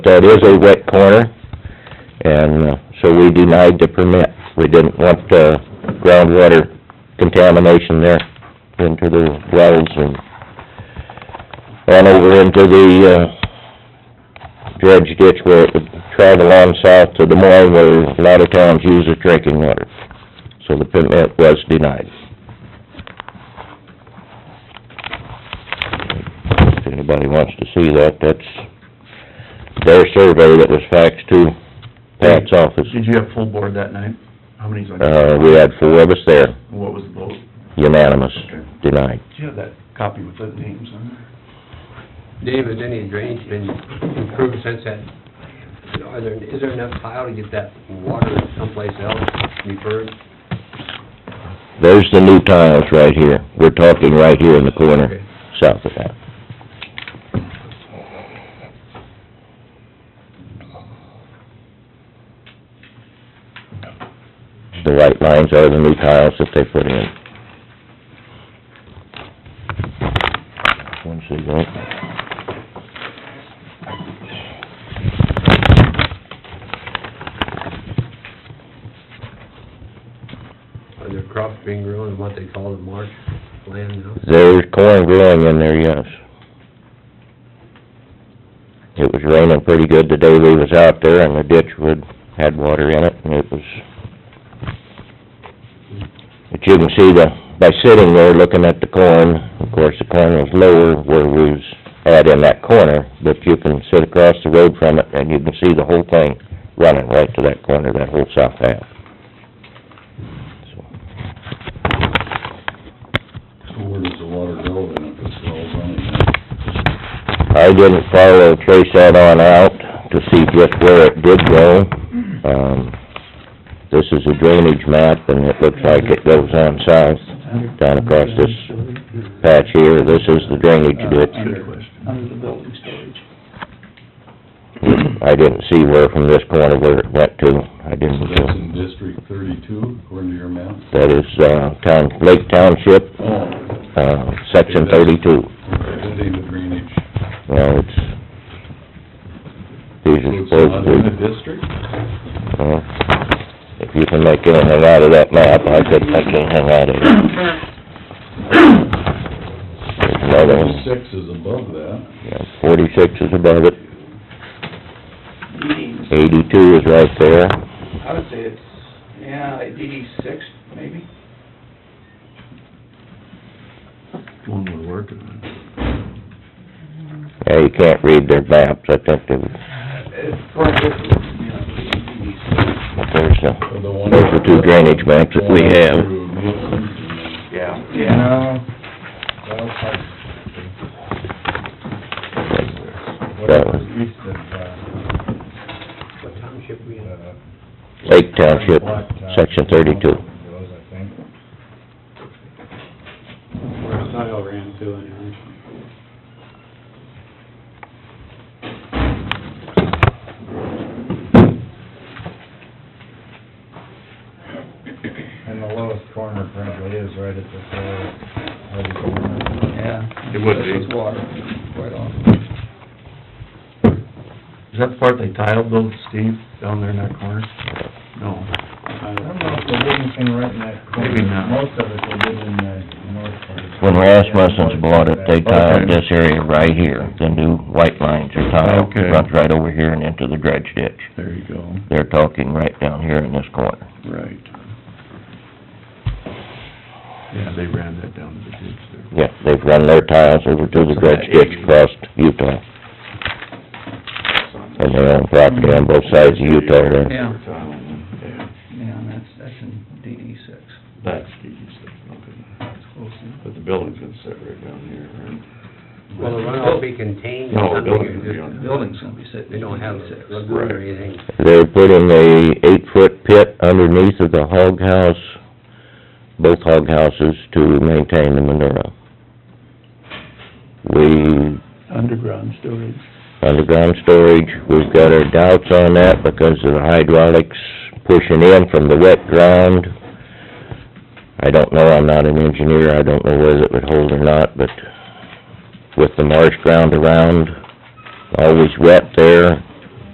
that is a wet corner, and uh, so we denied the permit. We didn't want uh, groundwater contamination there into the wells and on over into the uh, dredge ditch where it would travel on south to Des Moines where a lot of towns use their drinking water. So the permit was denied. If anybody wants to see that, that's their survey that was faxed to Pat's office. Did you have full board that night? How many's on? Uh, we had four of us there, What was the vote? unanimous, Okay. denied. Did you have that copy with the names on Dave, has any drainage been improved since that? Are there, is there enough tile to get that water someplace else referred? There's the new tiles right here. We're talking right here in the corner, Okay. south of that. The white lines are the new tiles that they put in. Once they go. Are there crops being grown in what they call the marsh land now? There's corn growing in there, yes. It was raining pretty good the day we was out there, and the ditch would, had water in it, and it was... But you can see the, by sitting there looking at the corn, of course, the corn was lower where we was at in that corner, but you can sit across the road from it, and you can see the whole thing running right to that corner, that whole south half. So, So where does the water go then if it's all running? I didn't follow, trace that on out to see just where it did go. Um, this is a drainage map, and it looks like it goes on south, Under- down across under this storage, patch here. This is the drainage ditch. Good question. Under the building storage. I didn't see where from this corner where it went to. I So didn't, that's uh, in District thirty-two, according to your map? that is, uh, town, Lake Township, Oh. uh, section thirty-two. That ain't the drainage. Well, it's, these are So it's not in the supposedly, district? well, Uh-huh. if you can make anything out of that map, I could make anything out of it. There's another one, Six is above that. yeah, forty-six is above it, DD, eighty-two is right there, I would say it's, yeah, like DD six, maybe? One would work. and yeah, you can't read their maps, I think they, but It's like this, you know, DD six. there's a, The one- those are two drainage maps that we have. Through Nielsen. Yeah. Yeah. Well, I- That one, east of, uh, What township we in? uh, Lake Township, uh, section thirty-two. goes, I think. where the tile ran to anyway. And the lowest corner currently is right at the, uh, right at the corner. Yeah. It would be. This is water, quite often. Is that the part they tiled though, Steve, down there in that corner? No. I don't know if they did anything right in that corner. Maybe not. Most of it they did in the north part. When Rasmussen's bought it, they tiled this area right here, the new white lines are tiled, Okay. runs right over here and into the dredge ditch. There you go, They're talking right down here in this corner. right. Yeah, they ran that down to the ditch Yeah, there. they've run their tiles over to the dredge ditch across Utah. And they own property on both sides of Utah there. Yeah, Yeah, yeah, and that's, that's in DD six. that's the east, that's okay. It's close to- But the building's gonna sit right down here, right? Will the runoff be contained No, or the building would be something? on- The building's gonna be sitting They in don't have DD a six. lagoon or Right. anything? They're putting a eight-foot pit underneath of the hog house, both hog houses, to maintain the manure. We Underground storage. underground storage, we've got our doubts on that because of the hydraulics pushing in from the wet ground. I don't know, I'm not an engineer, I don't know whether it would hold or not, but with the marsh ground around, always wet there,